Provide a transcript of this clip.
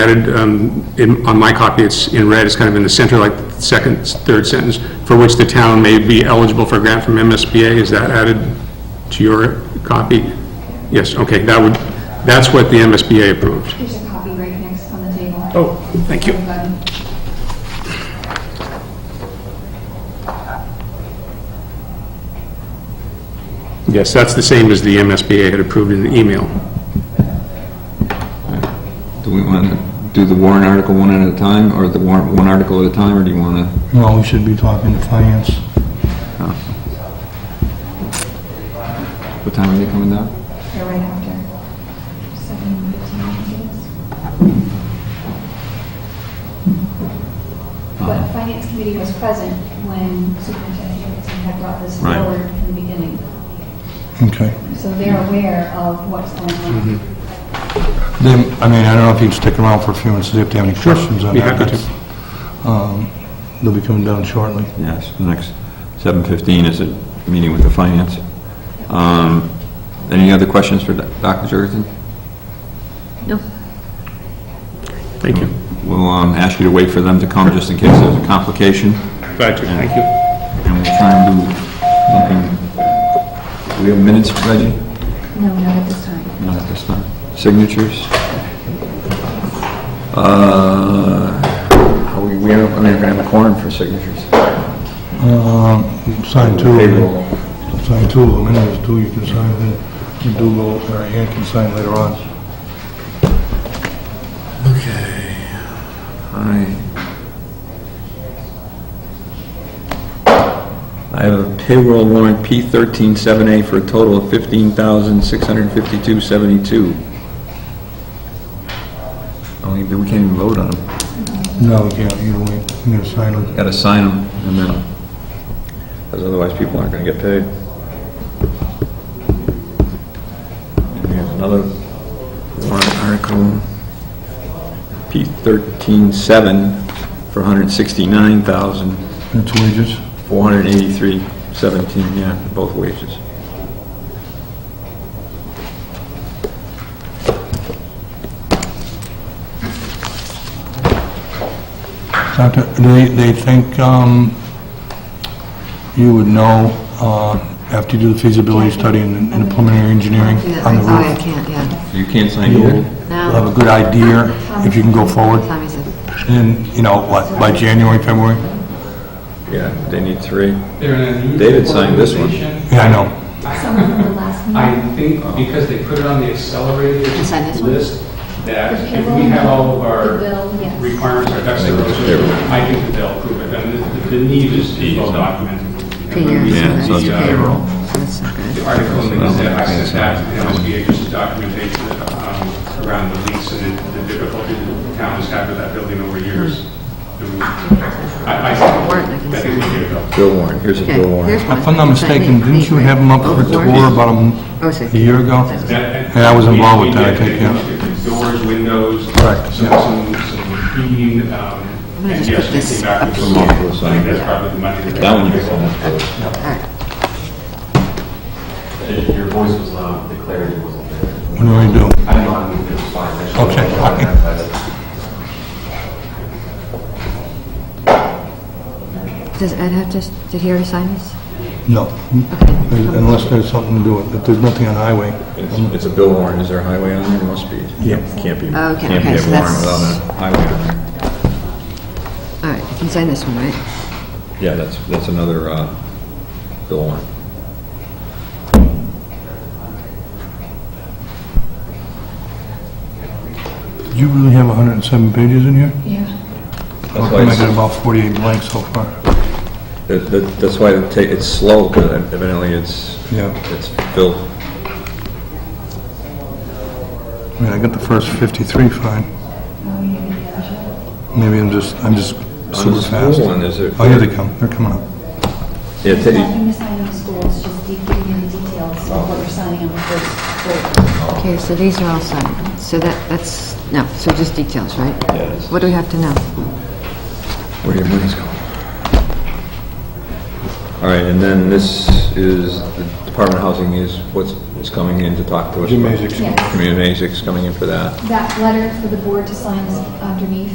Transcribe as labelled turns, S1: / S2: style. S1: added, um, in- on my copy, it's in red, it's kind of in the center, like the second, third sentence, for which the town may be eligible for a grant from MSBA, is that added to your copy? Yes, okay, that would, that's what the MSBA approved.
S2: There's a copy right next on the table.
S1: Oh, thank you.
S2: Button.
S1: Yes, that's the same as the MSBA had approved in the email.
S3: Do we want to do the warrant article one at a time, or the warrant one article at a time, or do you want to?
S4: Well, we should be talking to finance.
S3: What time are they coming down?
S2: They're right after. Seven fifteen, I think it is.
S1: Ah.
S2: But Finance Committee was present when Superintendent Jacobson had brought this
S3: Right.
S2: forward from the beginning.
S4: Okay.
S2: So they're aware of what's going
S1: Mm-hmm.
S2: on.
S4: Then, I mean, I don't know if you'd stick around for a few minutes, see if they have any questions on
S1: be
S4: that.
S1: happy to.
S4: That's, um, They'll be coming down shortly.
S3: Yes, the next, 7:15 is a meeting with the finance. Um, Any other questions for Dr. Jurgensen?
S1: Thank you.
S3: We'll um, ask you to wait for them to come, just in case there's a complication,
S1: Glad to, thank you.
S3: and we'll try and do something. Do we have minutes, Reggie?
S2: No, not at this time.
S3: Not at this time. Signatures? Uh, are we, we aren't, I mean, we're gonna have a quorum for signatures.
S4: Um, Sign two.
S3: Payroll.
S4: Sign two of them, and there's two you can sign, then you do go, or Ann can sign later on.
S3: I I have a payroll warrant P thirteen seven A for a total of fifteen thousand six hundred fifty-two seventy-two. Only, we can't even vote on them.
S4: No, you can't, you don't, you gotta sign them.
S3: Gotta sign them and then, because otherwise people aren't gonna get paid. And we have another warrant article, P thirteen seven for hundred sixty-nine thousand
S4: That's wages.
S3: Four hundred eighty-three seventeen, yeah, both wages.
S4: Doctor, they, they think, um, you would know, uh, after you do the feasibility study and and the preliminary engineering
S5: Yeah,
S4: on the
S5: sorry, I
S4: roof.
S5: can't, yeah.
S3: You can't sign
S4: You'll
S3: either?
S5: No.
S4: have a good idea
S5: um,
S4: if you can go forward.
S5: Tommy said,
S4: And, then, you know, what, by January, February?
S3: Yeah, they need three.
S6: They're an unusual
S3: David signed this one.
S6: organization.
S4: Yeah, I know.
S2: Some of the last
S6: I
S2: meeting.
S6: think
S3: Oh.
S6: because they put it on the accelerated
S5: You signed this one?
S6: list, that if we have all of
S2: The
S6: our
S2: bill, yes.
S6: requirements, our ducks in a row, so uh, I think that they'll approve it. And the- the need is is well documented.
S5: pay your-
S3: Yeah, so it's
S6: The, uh,
S5: payroll. So that's not good.
S6: The article in the Gazette, I sent that to the MSBA just as documentation um, around the lease and the the difficulty the town has had with that building over years.
S1: Hmm.
S6: I, I
S5: Warrant, I can
S6: think, I think we
S5: sign.
S6: get it
S4: Oh,
S6: though.
S3: Bill warrant, here's a
S5: Okay,
S3: bill
S5: here's
S3: warrant.
S5: one.
S4: If I'm not mistaken, didn't you have them up for
S5: Both
S4: tour
S5: warrants?
S4: about a m-
S5: Oh, it's
S4: a year ago?
S6: That-
S4: Yeah, I was involved with
S6: we- we
S4: that, I
S6: did,
S4: think, yeah.
S6: we did Doors, windows,
S4: Correct,
S6: some,
S4: yeah.
S6: some, some heating,
S5: I'm
S6: um,
S5: gonna
S6: and
S5: just
S6: yes,
S5: put
S6: we
S5: this
S6: came back
S5: up
S6: with
S5: here.
S6: some, I think that's probably the money.
S3: That one you can sign.
S5: All right.
S7: Your voice was loud, the clarity wasn't there.
S4: What do I do?
S7: I don't know, I mean, it was fine. I just-
S4: Okay.
S5: Does Ed have to, did he already sign this?
S4: No. Unless there's something to do with it. If there's nothing on highway,
S3: It's, it's a bill warrant, is there a highway on there? There Must be.
S4: Yeah.
S3: Can't be,
S5: Oh, okay,
S3: can't be
S5: okay,
S3: a
S5: so
S3: warrant
S5: that's-
S3: without a highway on there.
S5: All right, you can sign this one, right?
S3: Yeah, that's, that's another, uh, bill warrant.
S4: you really have 107 pages in here?
S2: Yeah.
S4: How
S3: That's why
S4: come I got
S3: it's,
S4: about 48 blanks so far?
S3: that- that- that's why it ta- it's slow, because evidently it's,
S4: Yeah.
S3: it's filled.
S4: I mean, I got the first 53 fine.
S2: Oh, you didn't get it.
S4: Maybe I'm just, I'm just
S3: On
S4: super
S3: the
S4: fast.
S3: school one, is there?
S4: Oh, here they come, they're coming up.
S3: Yeah,
S2: There's
S3: ta-
S2: Nothing to sign on the school, it's just de- giving you the details of what you're signing on the first floor.
S5: Okay, so these are all signed. So that, that's, no, so just details, right?
S3: Yeah, that's-
S5: What do we have to know?
S3: where your money's going. All right, and then this is, the Department of Housing is, what's, is coming in to talk to us.
S4: Jim
S3: about-
S4: Mazick's-
S2: Yes.
S3: Jim Mazic's coming in for that.
S2: That letter for the board to sign is underneath.